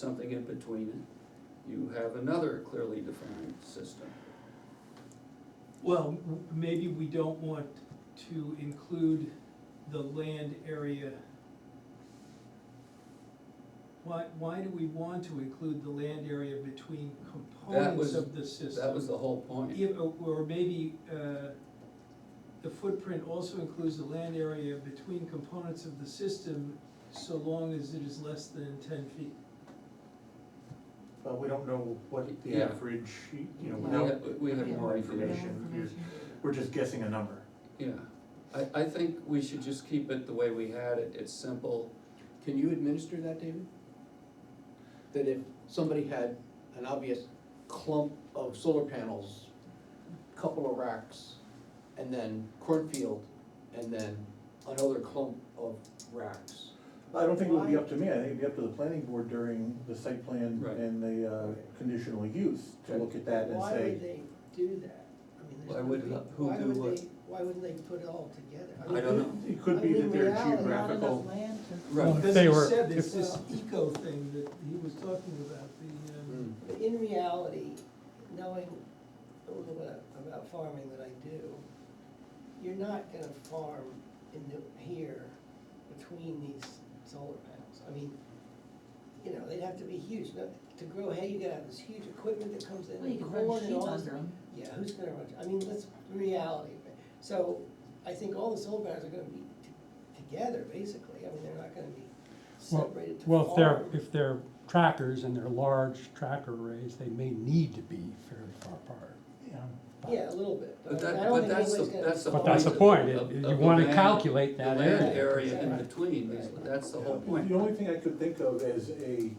something in between it, you have another clearly defined system. Well, w- maybe we don't want to include the land area. Why, why do we want to include the land area between components was- of the system? That was the whole point. Yeah, or- or maybe, uh, the footprint also includes the land area between components of the system, so long as it is less than ten feet. But we don't know what the Yeah. average, you know, We without, have, we have more information, we're just guessing a number. yeah. I, I think we should just keep it the way we had it, it's simple. Can you administer that, David? That if somebody had an obvious clump of solar panels, couple of racks, and then cornfield, and then another clump of racks. I don't think it would be up to me, I think it'd be up to the planning board during the site plan Right. and the uh, conditional use to look at that and Why would say, they do that? I mean, there's Why would- gotta be- who why do would what? they- Why would they put it all together? I don't know. it could be that they're geographical. I mean, in reality, not enough land to- Right. Because They he were- said it's if- this eco thing that he was talking about, the, um. But in reality, knowing a little bit about farming that I do, you're not gonna farm in the, here between these solar panels. I mean, you know, they'd have to be huge, Now, to grow hay, you gotta have this huge equipment that comes in, Well, you and could run corn and sheep all this. under them. Yeah, who's gonna run, I mean, that's the reality of it. So I think all the solar panels are gonna be t- together, basically, I mean, they're not gonna be Well- separated to farm. Well, if they're, if they're trackers and they're large tracker arrays, they may need to be fairly far apart. Yeah. Yeah, a little bit, But but I- that- I don't but think that's the- anybody's gonna. that's the But that's the of- point, of- it- of you the wanna land- calculate The that land area. area in Right. between, is- that's the whole point. The only thing I could think of as a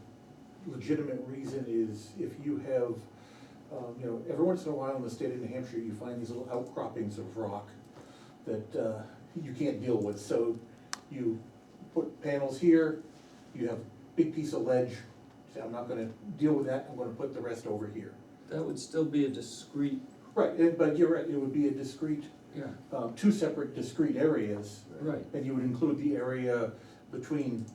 legitimate reason is if you have, um, you know, every once in a while in the state of New Hampshire, you find these little outcroppings of rock that, uh, you can't deal with, so you put panels here, you have a big piece of ledge, say, I'm not gonna deal with that, I'm gonna put the rest over here. That would still be a discrete, Right, and- but you're right, it would be a discrete, yeah, um, two separate discrete areas, right, and you would include the area between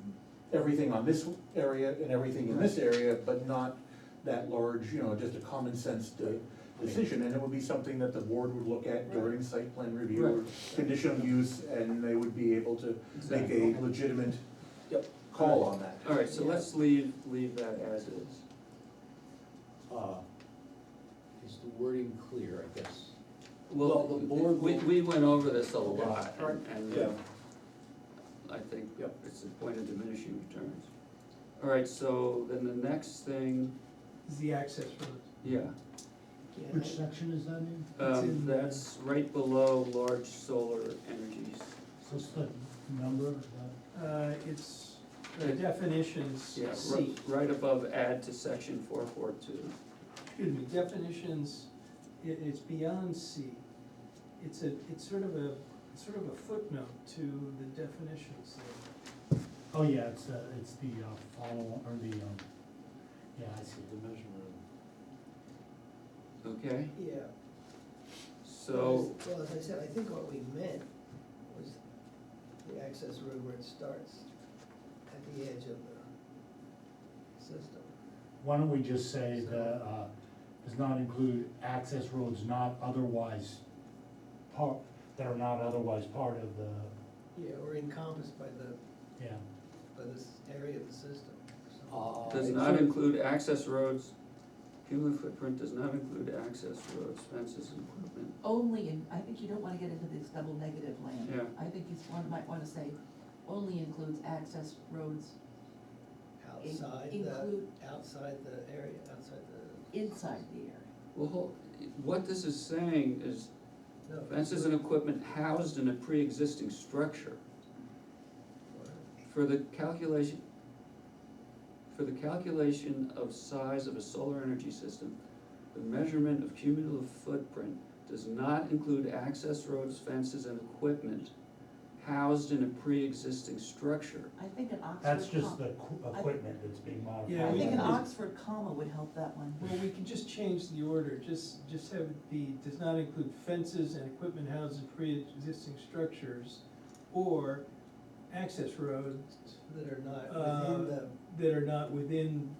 everything on this area and everything in this area, but not that large, you know, just a common sense de- decision, and it would be something that the board would look at during site plan review or Right. conditional use, and they would be able to make exactly. a legitimate call on that. All right, so Yeah. let's leave, leave that as is. Uh, Is the wording clear, I guess? Well, Well, the board we, will- we went over this a lot, Yeah. and- and Yeah. I think Yep. it's the point of diminishing returns. All right, so then the next thing, Hmm. is the access road. yeah, Yeah, Which section is that in? It's um, in the- that's right below large solar energies. What's the number of that? Uh, it's the definitions, Yeah, C, right, right above add to section four four two. excuse me, definitions, i it's beyond C. It's a, it's sort of a, it's sort of a footnote to the definitions there. Oh, yeah, it's, uh, it's the uh, follow, or the, um, yeah, I see. The measurement. Okay, Yeah. so, Well, as I said, I think what we meant was the access road where it starts at the edge of the system. Why don't we just say the, uh, does not include access roads not otherwise part, that are not otherwise part of the, Yeah, or encompassed by the, yeah. by this area of the system. or something. Uh, does it not should- include access roads, cumulative footprint does not include access roads, fences, and equipment. Only in, I think you don't wanna get into this double negative land. Yeah. I think you one, might wanna say, only includes access roads in- Outside the, include outside the area, outside the. inside the area. Well, hold- what this is saying is No, Fences and equipment housed in a pre-existing structure for the calculation, for the calculation of size of a solar energy system, the measurement of cumulative footprint does not include access roads, fences, and equipment housed in a pre-existing structure. I think an Oxford. That's just com- the qu- I- equipment that's being modified. Yeah, I we think an can- Oxford comma would help that one. Well, we can just change the order, just, just have it be, does not include fences and equipment houses and pre-existing structures or access roads That are not Uh, Uh, within the, that are not within